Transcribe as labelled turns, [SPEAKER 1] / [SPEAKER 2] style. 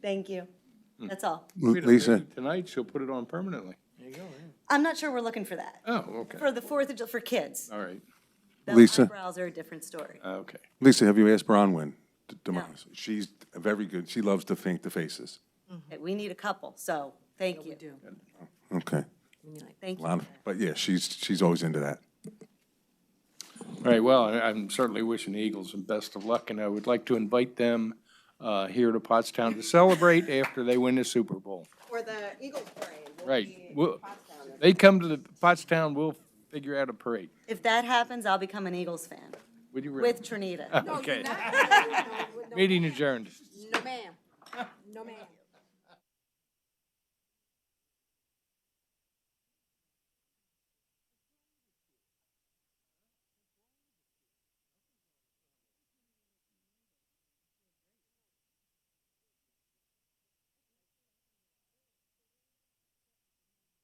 [SPEAKER 1] Thank you.
[SPEAKER 2] Hmm.
[SPEAKER 1] That's all.
[SPEAKER 2] Wait a
[SPEAKER 3] Lisa.
[SPEAKER 2] minute, Tonight, she'll put it on permanently. There you go,
[SPEAKER 1] I'm not sure we're looking for that.
[SPEAKER 2] yeah. Oh, okay,
[SPEAKER 1] For the Fourth of, Ju- for kids.
[SPEAKER 2] all right, uh,
[SPEAKER 1] The
[SPEAKER 3] Lisa?
[SPEAKER 1] Eyebrows are a different story.
[SPEAKER 2] okay.
[SPEAKER 3] Lisa, have you asked Bronwyn? to- to mind? She's very good. She loves to paint the faces.
[SPEAKER 2] Uh-huh.
[SPEAKER 1] Okay, We need a couple, so thank you. do.
[SPEAKER 3] Okay.
[SPEAKER 1] Thank
[SPEAKER 3] A lot
[SPEAKER 1] you.
[SPEAKER 3] of- But yeah, she's, she's always into that.
[SPEAKER 2] All right, well, I- I'm certainly wishing the Eagles the best of luck, and I would like to invite them uh, here to Pottstown to celebrate after they win the Super Bowl.
[SPEAKER 4] For the e- Eagles parade. we'll
[SPEAKER 2] Right.
[SPEAKER 4] be in
[SPEAKER 2] We'll-
[SPEAKER 4] Pottstown.
[SPEAKER 2] They come to the Pottstown, we'll figure out a parade.
[SPEAKER 1] If that happens, I'll become an Eagles fan
[SPEAKER 2] Would you?
[SPEAKER 1] with Trinita.
[SPEAKER 4] Oh, No,
[SPEAKER 2] Okay.
[SPEAKER 4] not- no, no, no,
[SPEAKER 2] Meeting adjourned.
[SPEAKER 4] No, ma'am. No, ma'am.